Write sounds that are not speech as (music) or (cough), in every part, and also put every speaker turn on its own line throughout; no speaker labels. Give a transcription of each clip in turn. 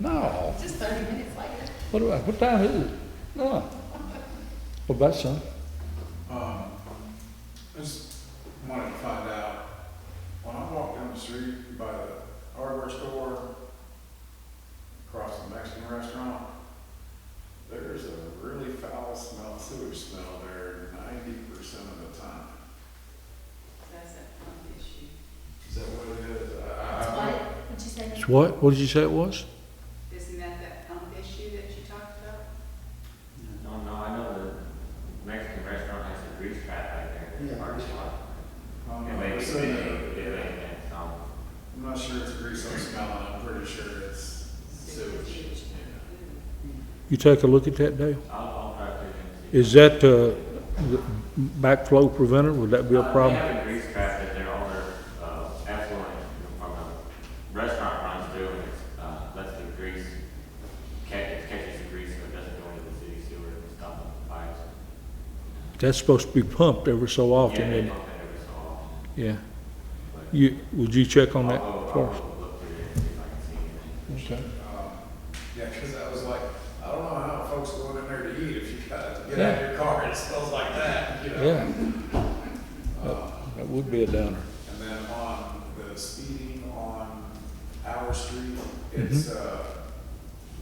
No,
Just thirty minutes later.
what, do I- what time is it? No. What about some?
Um, I just wanted to find out, when I walk down the street by the hardware store, across the Mexican restaurant, there's a really foul smell, sewage smell there ninety percent of the time.
That's a pump issue.
Is that what it is? I- I- I don't-
What, would you say?
It's what, what did you say it was?
Isn't that that pump issue that you talked about?
No, no, I know the Mexican restaurant has a grease trap right there in the
Yeah.
parking lot.
I don't
And
know.
they,
It's
they,
in
they,
there.
they, that's all.
I'm not sure it's grease I'm smelling, I'm pretty sure it's sewage. Yeah.
You take a look at that, Dale?
I'll, I'll try to. see.
Is that, uh, the backflow preventer, would that be a
Uh,
problem?
They have a grease trap that their owner, uh, affluent from a restaurant runs through and it's, uh, lets the grease catch, catches the grease so it doesn't go into the city sewer and stop the fires.
That's supposed to be pumped every so often,
Yeah, they
and,
pump it every so often,
yeah.
but
You, would you check on
I'll
that
go-
for
I'll
us?
go look through it and see if I can see anything.
Okay.
Um, Yeah, because I was like, I don't know how folks go in there to eat if you gotta get out of your car and it smells like that, you know?
Yeah,
Uh,
that would be a downer.
And then on the speeding on our street, it's, uh,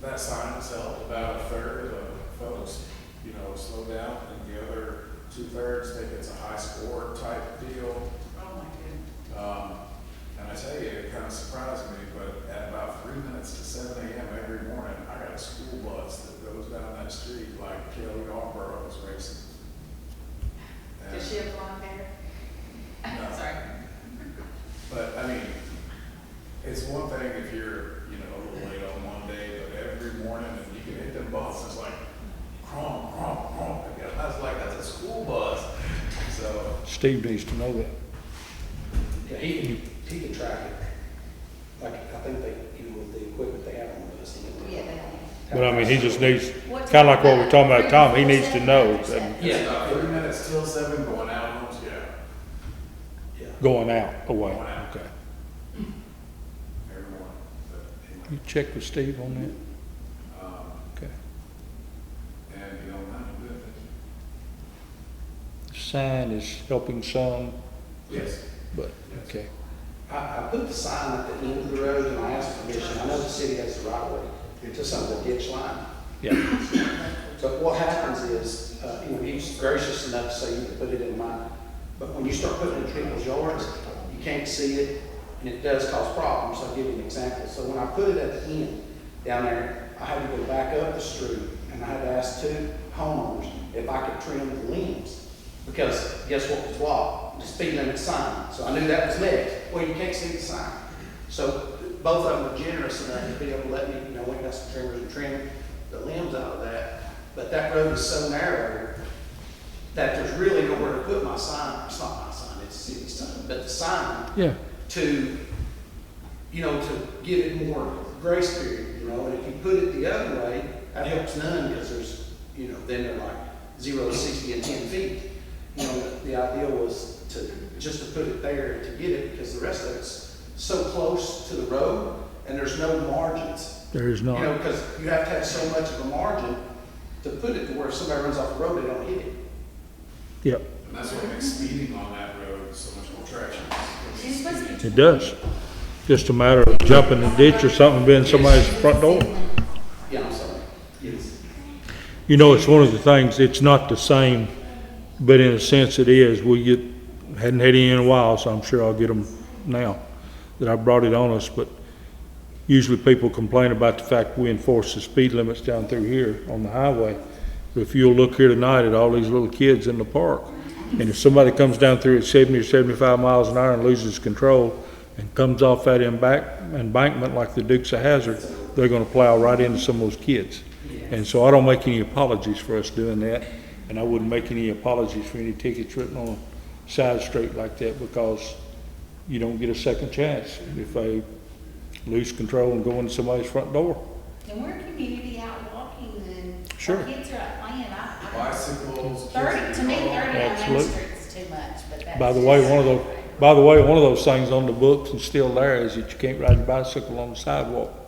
that sign itself, about a third of folks, you know, slow down, and the other two-thirds think it's a high score type deal.
Oh, my goodness.
Um, and I tell you, it kind of surprised me, but at about three minutes to seven AM every morning, I got a school bus that goes down that street like Kelly Alborough was racing. And-
Does she have blonde hair?
No.
(laughs) Sorry.
But, I mean, it's one thing if you're, you know, a little late on one day, but every morning, and you can hit them buses, it's like, crom, crom, crom, again, I was like, that's a school bus, so.
Steve needs to know that.
Yeah, he can, he can track it. Like, I think they, even with the equipment they have on the bus. he can do it.
But I mean, he just needs, kinda like what we're talking about, Tom, he needs to know. that-
It's about three minutes till seven, going out, homes, yeah.
Yeah.
Going out away,
Going out.
okay.
every morning. but anyway.
You check with Steve on that?
Um,
Okay.
And, you know, not good.
The Sign is helping some,
Yes.
but, okay.
I, I put the sign at the end of the road and I asked permission. I know the city has the right of way to some of the ditch line.
Yeah,
But what happens is, uh, you know, he's gracious enough to say you can put it in mine. But when you start putting it in people's yards, you can't see it, and it does cause problems. I'll give you an example. So when I put it at the end down there, I had to go back up the street, and I had to ask two homeowners if I could trim the limbs. Because guess what was blocked? The speed limit sign. So I knew that was next. Well, you can't see the sign. So both of them were generous enough to be able to let me, you know, we got some trimmers and trim the limbs out of that. But that road is so narrow that there's really nowhere to put my sign. It's not my sign, it's the city sign, but the sign
yeah,
to, you know, to give it more grace period, you know? And if you put it the other way, that helps none because there's, you know, then they're like zero to sixty and ten feet. You know, the idea was to, just to put it there to get it because the rest of it's so close to the road and there's no margins.
there is
You know,
not.
because you have to have so much of a margin to put it to where if somebody runs off the road, they don't hit it.
Yeah,
And that's what makes speeding on that road so much more traction.
She's supposed to be.
it does. Just a matter of jumping the ditch or something, being somebody's front door.
Yeah, I'm sorry. Yes.
You know, it's one of the things, it's not the same, but in a sense it is. We get, hadn't had any in a while, so I'm sure I'll get them now that I brought it on us, but usually people complain about the fact we enforce the speed limits down through here on the highway. But if you'll look here tonight at all these little kids in the park, and if somebody comes down through at seventy or seventy-five miles an hour and loses control and comes off that embank- embankment like the Dukes of Hazard, they're gonna plow right into some of those kids. And so I don't make any apologies for us doing that, and I wouldn't make any apologies for any tickets written on a side street like that because you don't get a second chance if they lose control and go into somebody's front door.
And we're a community out walking and
Sure.
our kids are out playing. I, I,
Bicycles. kids
thirty, to me,
in
thirty
cars.
uh,
on Main
Absolutely.
Street's too much, but that's.
By the way,
just-
one of those, by the way, one of those things on the books and still there is that you can't ride a bicycle on the sidewalk